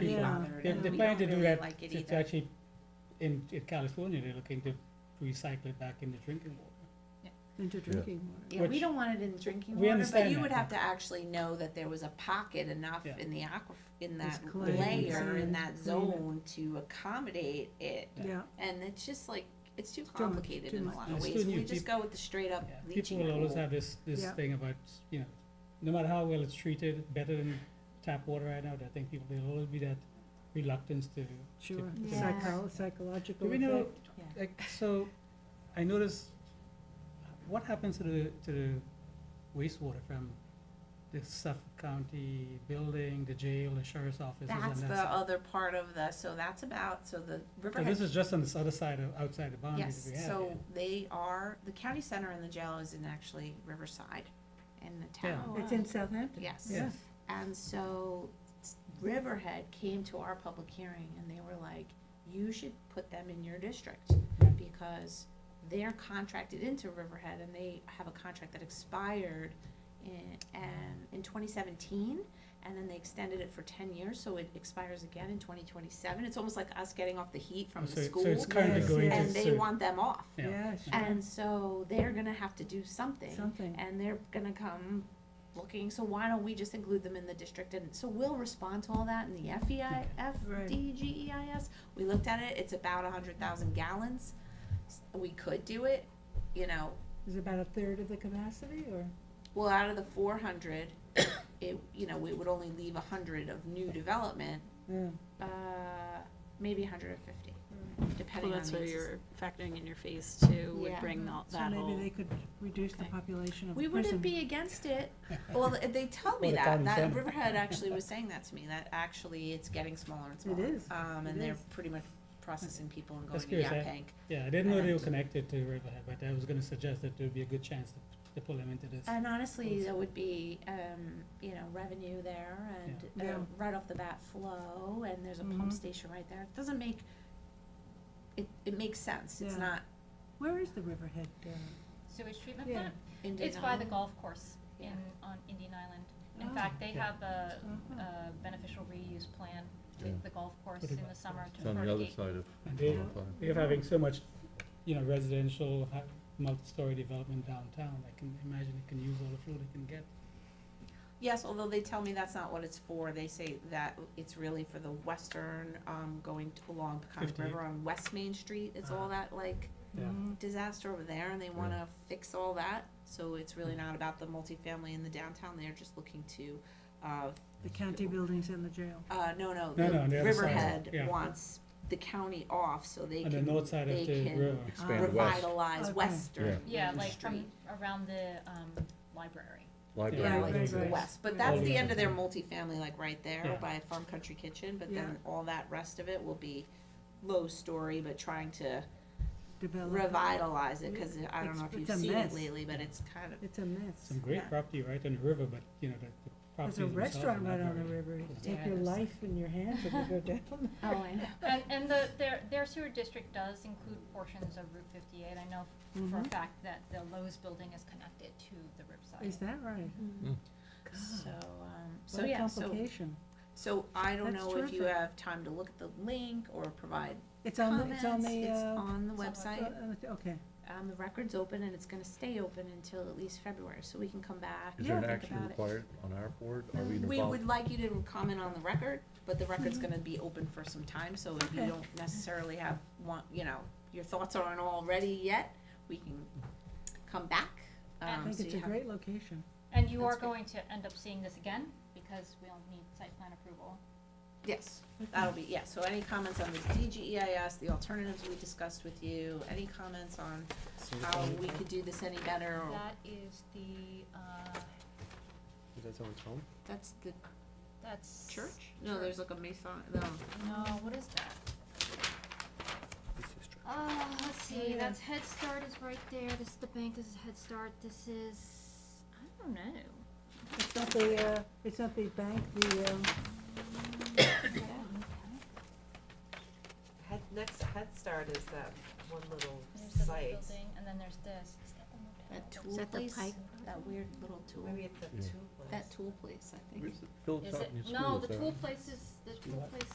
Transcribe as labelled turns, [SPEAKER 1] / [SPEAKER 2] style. [SPEAKER 1] be
[SPEAKER 2] Yeah.
[SPEAKER 1] bothered,
[SPEAKER 3] They-
[SPEAKER 1] and
[SPEAKER 3] They're
[SPEAKER 1] we
[SPEAKER 3] planning to
[SPEAKER 1] don't
[SPEAKER 3] do
[SPEAKER 1] really
[SPEAKER 3] that,
[SPEAKER 1] like it
[SPEAKER 3] it's
[SPEAKER 1] either.
[SPEAKER 3] actually, in in California, they're looking to recycle it back into drinking water.
[SPEAKER 2] into drinking water.
[SPEAKER 1] Yeah, we
[SPEAKER 3] which-
[SPEAKER 1] don't want it in drinking
[SPEAKER 3] We
[SPEAKER 1] water, but
[SPEAKER 3] understand
[SPEAKER 1] you
[SPEAKER 3] that,
[SPEAKER 1] would
[SPEAKER 3] yeah.
[SPEAKER 1] have to actually know that there was a pocket enough
[SPEAKER 3] Yeah.
[SPEAKER 1] in the aqua, in that
[SPEAKER 2] clean,
[SPEAKER 1] layer, in
[SPEAKER 2] clean,
[SPEAKER 1] that
[SPEAKER 2] clean it.
[SPEAKER 1] zone to accommodate it.
[SPEAKER 2] Yeah,
[SPEAKER 1] And it's just like, it's too
[SPEAKER 2] much,
[SPEAKER 1] complicated
[SPEAKER 2] too
[SPEAKER 1] in a
[SPEAKER 2] much.
[SPEAKER 1] lot of
[SPEAKER 3] It's
[SPEAKER 1] ways,
[SPEAKER 3] too
[SPEAKER 1] we
[SPEAKER 3] new.
[SPEAKER 1] just go with the straight up
[SPEAKER 3] Yeah. People
[SPEAKER 1] leaching
[SPEAKER 3] will always
[SPEAKER 1] pool.
[SPEAKER 3] have this, this
[SPEAKER 2] Yeah.
[SPEAKER 3] thing about, you know, no matter how well it's treated, better than tap water right now, I think people, there'll always be that reluctance to.
[SPEAKER 2] sure.
[SPEAKER 3] Yeah.
[SPEAKER 2] Psycho, psychological
[SPEAKER 3] Do we know,
[SPEAKER 2] effect.
[SPEAKER 3] like, so, I noticed, what happens to the, to the wastewater from the Suffolk County building, the jail, the sheriff's offices and
[SPEAKER 1] That's
[SPEAKER 3] that
[SPEAKER 1] the
[SPEAKER 3] stuff?
[SPEAKER 1] other part of the, so that's about, so the
[SPEAKER 3] So Oh, this
[SPEAKER 1] Riverhead,
[SPEAKER 3] is just on this other side of, outside the boundary
[SPEAKER 1] yes,
[SPEAKER 3] that we have.
[SPEAKER 1] so
[SPEAKER 3] here.
[SPEAKER 1] they are, the county center and the jail is in actually Riverside, in the
[SPEAKER 3] Yeah.
[SPEAKER 1] town.
[SPEAKER 2] It's in Southampton.
[SPEAKER 1] Yes.
[SPEAKER 3] Yeah.
[SPEAKER 1] And so s- Riverhead came to our public hearing and they were like, you should put them in your district because they're contracted into Riverhead and they have a contract that expired in, um, in twenty seventeen. And then they extended it for ten years, so it expires again in twenty twenty-seven. It's almost like us getting off the heat from
[SPEAKER 3] So
[SPEAKER 1] the
[SPEAKER 3] it- So
[SPEAKER 1] school
[SPEAKER 3] it's currently
[SPEAKER 2] Yes,
[SPEAKER 3] going to.
[SPEAKER 1] and they
[SPEAKER 3] so-
[SPEAKER 1] want them off.
[SPEAKER 3] Yeah.
[SPEAKER 2] Yeah, sure,
[SPEAKER 1] And so they're gonna have to do something
[SPEAKER 2] something.
[SPEAKER 1] and they're gonna come looking, so why don't we just include them in the district, and so we'll respond to all that in the E FEI,
[SPEAKER 2] Right.
[SPEAKER 1] FDGEIS. E We looked at it, it's about a hundred thousand gallons, S- we could do it, you know,
[SPEAKER 2] Is it about a third of the capacity or?
[SPEAKER 1] well, out of the four hundred, it, you know, we would only leave a hundred of new development,
[SPEAKER 2] Yeah.
[SPEAKER 1] uh, maybe a hundred and fifty,
[SPEAKER 4] Well,
[SPEAKER 1] depending on
[SPEAKER 4] that's
[SPEAKER 1] the
[SPEAKER 4] what
[SPEAKER 1] uses.
[SPEAKER 4] you're factoring in your phase two
[SPEAKER 1] Yeah.
[SPEAKER 4] would bring all
[SPEAKER 2] So
[SPEAKER 4] that
[SPEAKER 2] maybe
[SPEAKER 4] whole.
[SPEAKER 2] they could reduce the
[SPEAKER 4] Okay.
[SPEAKER 2] population of
[SPEAKER 1] We
[SPEAKER 2] the
[SPEAKER 1] wouldn't
[SPEAKER 2] prison.
[SPEAKER 1] be against it. Well, th- they tell me
[SPEAKER 3] Or the
[SPEAKER 1] that.
[SPEAKER 3] county
[SPEAKER 1] That
[SPEAKER 3] center.
[SPEAKER 1] Riverhead actually was saying that to me, that actually it's getting smaller and smaller.
[SPEAKER 2] is.
[SPEAKER 1] Um,
[SPEAKER 2] It
[SPEAKER 1] and they're
[SPEAKER 2] is.
[SPEAKER 1] pretty much processing people and going
[SPEAKER 3] That's
[SPEAKER 1] to
[SPEAKER 3] curious, eh? I-
[SPEAKER 1] Yapank.
[SPEAKER 3] Yeah, I didn't know they were
[SPEAKER 1] And-
[SPEAKER 3] connected to Riverhead, but I was gonna suggest that there'd be a good chance to, to pull them into this.
[SPEAKER 1] And honestly, there would be, um, you know, revenue there and,
[SPEAKER 2] Yeah.
[SPEAKER 1] uh, right off the bat flow, and there's a pump
[SPEAKER 2] Mhm.
[SPEAKER 1] station right there. It doesn't make, it, it makes sense. It's
[SPEAKER 2] Yeah.
[SPEAKER 1] not
[SPEAKER 2] Where is the Riverhead? uh,
[SPEAKER 5] sewage treatment
[SPEAKER 2] Yeah.
[SPEAKER 5] plant?
[SPEAKER 1] Indian
[SPEAKER 5] It's by the
[SPEAKER 1] Island.
[SPEAKER 5] golf course in,
[SPEAKER 1] Yeah.
[SPEAKER 5] on Indian Island.
[SPEAKER 2] Oh.
[SPEAKER 5] In fact, uh, they
[SPEAKER 3] Yeah.
[SPEAKER 5] have a,
[SPEAKER 2] Uh-huh.
[SPEAKER 5] a beneficial reuse plan
[SPEAKER 6] Yeah.
[SPEAKER 5] with the golf course
[SPEAKER 3] Put it
[SPEAKER 5] in
[SPEAKER 3] back.
[SPEAKER 5] the summer to
[SPEAKER 6] It's on the other
[SPEAKER 5] fertigate.
[SPEAKER 6] side of
[SPEAKER 3] And they,
[SPEAKER 6] Holland Pond.
[SPEAKER 3] they're having so much, you know, residential, ha- multi-story development downtown, I can imagine they can use all the flow they can get.
[SPEAKER 1] Yes, although they tell me that's not what it's for. They say that it's really for the western, um, going to- along Peconic
[SPEAKER 3] 58.
[SPEAKER 1] River on West Main Street. It's all
[SPEAKER 3] Ah.
[SPEAKER 1] that like
[SPEAKER 3] Yeah.
[SPEAKER 2] mm,
[SPEAKER 1] disaster over there and they
[SPEAKER 6] Yeah.
[SPEAKER 1] wanna fix all that. So it's
[SPEAKER 3] Mm.
[SPEAKER 1] really not about the multifamily in the downtown. They're just looking to, uh,
[SPEAKER 2] The county buildings and the jail.
[SPEAKER 1] uh, no, no,
[SPEAKER 3] No, no,
[SPEAKER 1] the
[SPEAKER 3] on the other side,
[SPEAKER 1] Riverhead
[SPEAKER 3] yeah.
[SPEAKER 1] wants the county off so they
[SPEAKER 3] On the
[SPEAKER 1] can,
[SPEAKER 3] north side of
[SPEAKER 1] they
[SPEAKER 3] the river.
[SPEAKER 1] can
[SPEAKER 6] Expand west,
[SPEAKER 1] revitalize
[SPEAKER 2] Okay.
[SPEAKER 1] western
[SPEAKER 5] Yeah, like from
[SPEAKER 1] Street.
[SPEAKER 5] around the, um, library.
[SPEAKER 2] Yeah,
[SPEAKER 1] Yeah,
[SPEAKER 6] library.
[SPEAKER 1] like
[SPEAKER 2] right,
[SPEAKER 1] to the
[SPEAKER 2] right.
[SPEAKER 1] west, but
[SPEAKER 2] Right.
[SPEAKER 1] that's
[SPEAKER 3] All
[SPEAKER 1] the
[SPEAKER 3] the
[SPEAKER 1] end of their
[SPEAKER 6] way.
[SPEAKER 1] multifamily, like right there
[SPEAKER 3] Yeah.
[SPEAKER 1] by Farm Country Kitchen, but
[SPEAKER 2] Yeah.
[SPEAKER 1] then all that rest of it will be low story, but trying to
[SPEAKER 2] Develop.
[SPEAKER 1] revitalize it, cause I don't
[SPEAKER 2] It's-
[SPEAKER 1] know if
[SPEAKER 2] it's
[SPEAKER 1] you've
[SPEAKER 2] a
[SPEAKER 1] seen it
[SPEAKER 2] mess.
[SPEAKER 1] lately, but it's kind of,
[SPEAKER 2] It's a mess.
[SPEAKER 3] Some great
[SPEAKER 1] Yeah.
[SPEAKER 3] property right on the river, but, you know, the, the
[SPEAKER 2] There's
[SPEAKER 3] properties
[SPEAKER 2] a
[SPEAKER 3] themselves are
[SPEAKER 2] restaurant
[SPEAKER 3] not
[SPEAKER 2] right on the
[SPEAKER 3] very-
[SPEAKER 2] river. You
[SPEAKER 3] Yeah.
[SPEAKER 2] Take your
[SPEAKER 1] Yes.
[SPEAKER 2] life in your hands if you go down.
[SPEAKER 1] oh, I know.
[SPEAKER 5] And, and the, their, their sewer district does include portions of Route fifty-eight. I know f- for a
[SPEAKER 2] Mhm.
[SPEAKER 5] fact that the Lowe's building is connected to the Riverside.
[SPEAKER 2] Is that right? Mm.
[SPEAKER 1] So, um, so
[SPEAKER 2] What a
[SPEAKER 1] yeah, so,
[SPEAKER 2] complication.
[SPEAKER 1] so I don't
[SPEAKER 2] That's
[SPEAKER 1] know if you
[SPEAKER 2] terrific.
[SPEAKER 1] have time to look at the link or provide
[SPEAKER 2] It's on, the-
[SPEAKER 1] comments.
[SPEAKER 2] it's on the,
[SPEAKER 1] It's
[SPEAKER 2] uh,
[SPEAKER 1] on the
[SPEAKER 5] It's on
[SPEAKER 1] website.
[SPEAKER 2] uh, okay.
[SPEAKER 1] Um, the record's open and it's gonna stay open until at least February, so we can come back and
[SPEAKER 6] Is
[SPEAKER 1] think about
[SPEAKER 6] there an
[SPEAKER 1] it.
[SPEAKER 6] action required on our board? Are we
[SPEAKER 1] We would
[SPEAKER 6] involved?
[SPEAKER 1] like you to comment on the record, but the record's gonna be open for some time, so if you
[SPEAKER 2] Okay.
[SPEAKER 1] don't necessarily have one, you know, your thoughts aren't all ready yet, we can come back.
[SPEAKER 2] I
[SPEAKER 1] Um,
[SPEAKER 2] think
[SPEAKER 1] so
[SPEAKER 2] it's
[SPEAKER 1] you
[SPEAKER 2] a
[SPEAKER 1] have,
[SPEAKER 2] great location.
[SPEAKER 5] And you
[SPEAKER 1] That's
[SPEAKER 5] are
[SPEAKER 1] great.
[SPEAKER 5] going to end up seeing this again because we'll need site plan approval.
[SPEAKER 1] yes, that'll be, yeah, so any comments on the DGEIS, the alternatives we discussed with you, any comments on how we could do this any better, or,
[SPEAKER 5] That is the, uh,
[SPEAKER 1] that's the
[SPEAKER 5] that's.
[SPEAKER 1] church? No, there's like a mason, no,
[SPEAKER 5] No, what is that? Uh, let's
[SPEAKER 2] Oh,
[SPEAKER 5] see,
[SPEAKER 2] yeah.
[SPEAKER 5] that's Head Start is right there, this is the bank, this is Head Start, this is, I don't know.
[SPEAKER 2] It's not the, uh, it's not the bank, the, um,
[SPEAKER 7] Head, next to Head Start is that one little
[SPEAKER 5] There's the
[SPEAKER 7] site.
[SPEAKER 5] building, and then there's this. Is that the motel?
[SPEAKER 1] that
[SPEAKER 5] Is
[SPEAKER 1] tool
[SPEAKER 4] that the
[SPEAKER 1] place?
[SPEAKER 4] Pike
[SPEAKER 1] that weird little tool,
[SPEAKER 7] Maybe it's a
[SPEAKER 6] Yeah.
[SPEAKER 7] two place.
[SPEAKER 1] that tool place, I think.
[SPEAKER 6] Where's the Phillips
[SPEAKER 5] Is it?
[SPEAKER 6] Avenue School?
[SPEAKER 5] No,
[SPEAKER 6] is
[SPEAKER 5] the
[SPEAKER 6] that
[SPEAKER 5] tool
[SPEAKER 6] right?
[SPEAKER 5] places, the tool
[SPEAKER 3] What?
[SPEAKER 5] places